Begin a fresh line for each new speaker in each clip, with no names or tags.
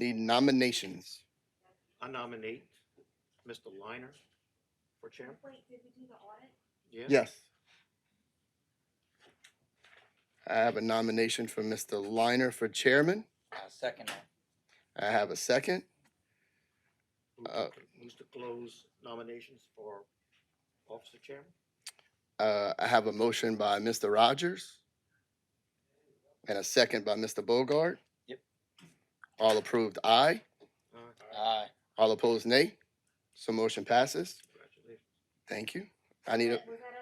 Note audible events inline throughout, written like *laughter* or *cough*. the nominations.
I nominate Mr. Liner for chair.
Wait, did we do the audit?
Yeah?
Yes. I have a nomination for Mr. Liner for chairman.
I second that.
I have a second.
Who-
Uh,
Who's to close nominations for officer chairman?
Uh, I have a motion by Mr. Rogers and a second by Mr. Bogart.
Yep.
All approved, aye.
Uh,
Aye.
All opposed, nay. So motion passes.
Congratulations.
Thank you. I need a,
Was that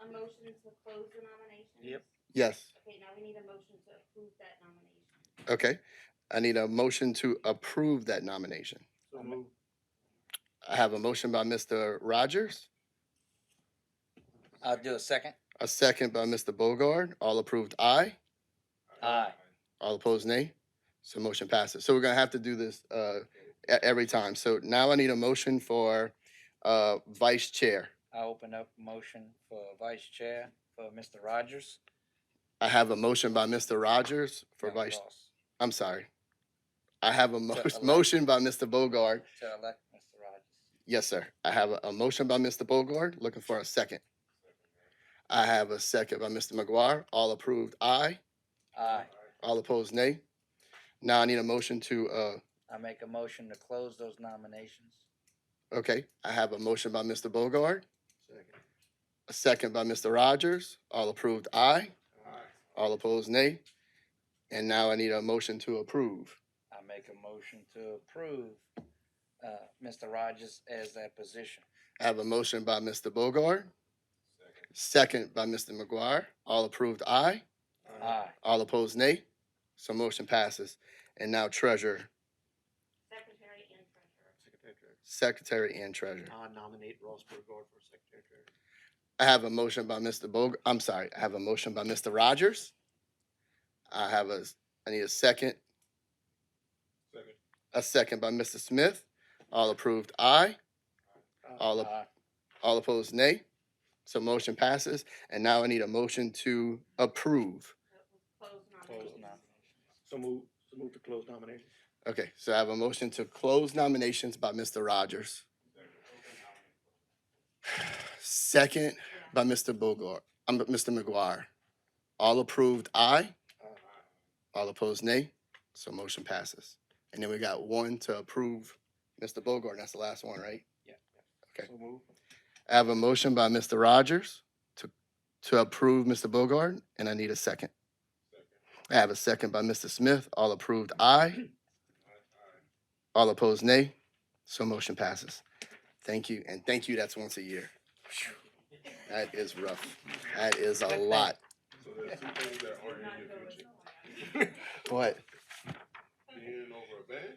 a, a motion to close the nomination?
Yep.
yes,
Okay, now we need a motion to approve that nomination.
okay. I need a motion to approve that nomination.
So moved.
I have a motion by Mr. Rogers,
I'll do a second.
a second by Mr. Bogard. All approved, aye.
Aye.
All opposed, nay. So motion passes. So we're gonna have to do this uh, e- every time. So now I need a motion for uh, vice chair.
I open up motion for vice chair for Mr. Rogers.
I have a motion by Mr. Rogers for
That was
vice,
us.
I'm sorry. I have a mo- *laughs*
elect-
motion by Mr. Bogard.
To elect Mr. Rogers.
Yes, sir. I have a, a motion by Mr. Bogard, looking for a second. I have a second by Mr. McGuire. All approved, aye.
Aye.
All opposed, nay. Now I need a motion to, uh,
I make a motion to close those nominations.
okay, I have a motion by Mr. Bogard,
Second.
a second by Mr. Rogers. All approved, aye. All opposed, nay. And now I need a motion to approve.
I make a motion to approve, uh, Mr. Rogers as that position.
I have a motion by Mr. Bogard, second by Mr. McGuire. All approved, aye.
Aye.
All opposed, nay. So motion passes. And now treasurer,
Secretary and treasurer.
Secretary Treasurer.
secretary and treasurer.
I nominate Ross Burgard for secretary treasurer.
I have a motion by Mr. Bog, I'm sorry, I have a motion by Mr. Rogers. I have a, s- I need a second,
Second.
a second by Mr. Smith. All approved, aye. All op-
Aye.
All opposed, nay. So motion passes. And now I need a motion to approve.
So we'll uh, Close
Close
nominations.
nominations.
So move, so move to close nominations.
Okay, so I have a motion to close nominations by Mr. Rogers. Second
Yeah.
by Mr. Bogart, um, Mr. McGuire. All approved, aye.
Uh,
All opposed, nay. So motion passes. And then we got one to approve, Mr. Bogart, that's the last one, right?
Yeah.
Okay.
So move.
I have a motion by Mr. Rogers to, to approve Mr. Bogart, and I need a second. I have a second by Mr. Smith. All approved, aye. All opposed, nay. So motion passes. Thank you, and thank you, that's once a year. Phew. That is rough. That is a lot.
So there's two things that
Did
are in
not
your
go with
future.
the one.
*laughs*
What?
Being over a bed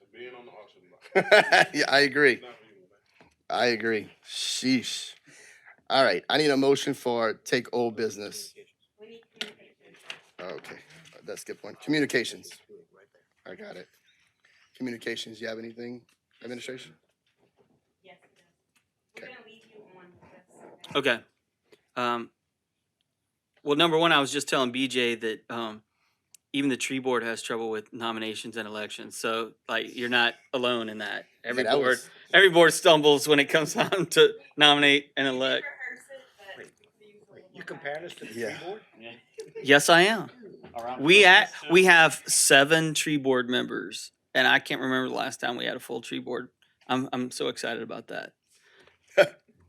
and being on the auction
*laughs*
block.
*laughs* Yeah, I agree.
Not reasonable, man.
I agree. Sheesh. All right, I need a motion for take old business.
We need communication.
Okay, let's skip one. Communications.
Right there.
I got it. Communications, you have anything, administration?
Yes, it is.
Okay.
We're gonna leave you on this.
Okay. Um, well, number one, I was just telling BJ that um, even the tree board has trouble with nominations and elections. So, like, you're not alone in that. Every
Yeah, that
board,
was-
every board stumbles when it comes *laughs* time to nominate and
We did
elect.
rehearse it, but we use a little
You
more
comparing us to the tree
Yeah.
board?
Yes, I am. We at we have seven tree board members, and I can't remember the last time we had a full tree board. I'm I'm so excited about that.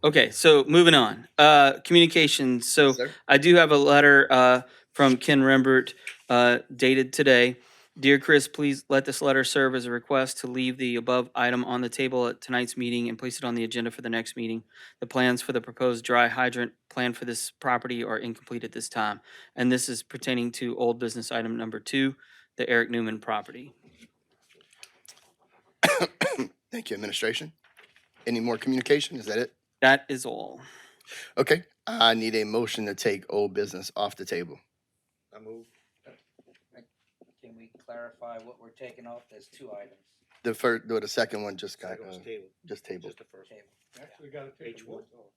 okay, so moving on. Uh, communications. So.
Sir?
I do have a letter uh, from Ken Rembert uh, dated today. Dear Chris, please let this letter serve as a request to leave the above item on the table at tonight's meeting and place it on the agenda for the next meeting. The plans for the proposed dry hydrant plan for this property are incomplete at this time. And this is pertaining to old business item number two, the Eric Newman property.
Thank you, administration. Any more communication? Is that it?
That is all.
Okay, I need a motion to take old business off the table.
I move.
Can we clarify what we're taking off? There's two items.
The first, the second one just got,
Second
uh,
was table,
just tabled.
just the first.
Table.
Actually, gotta take
H
the
one.
votes off.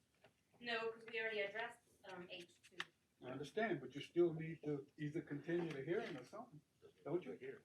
No, because we already addressed, um, H two.
I understand, but you still need to either continue the hearing or something, don't you?
Here.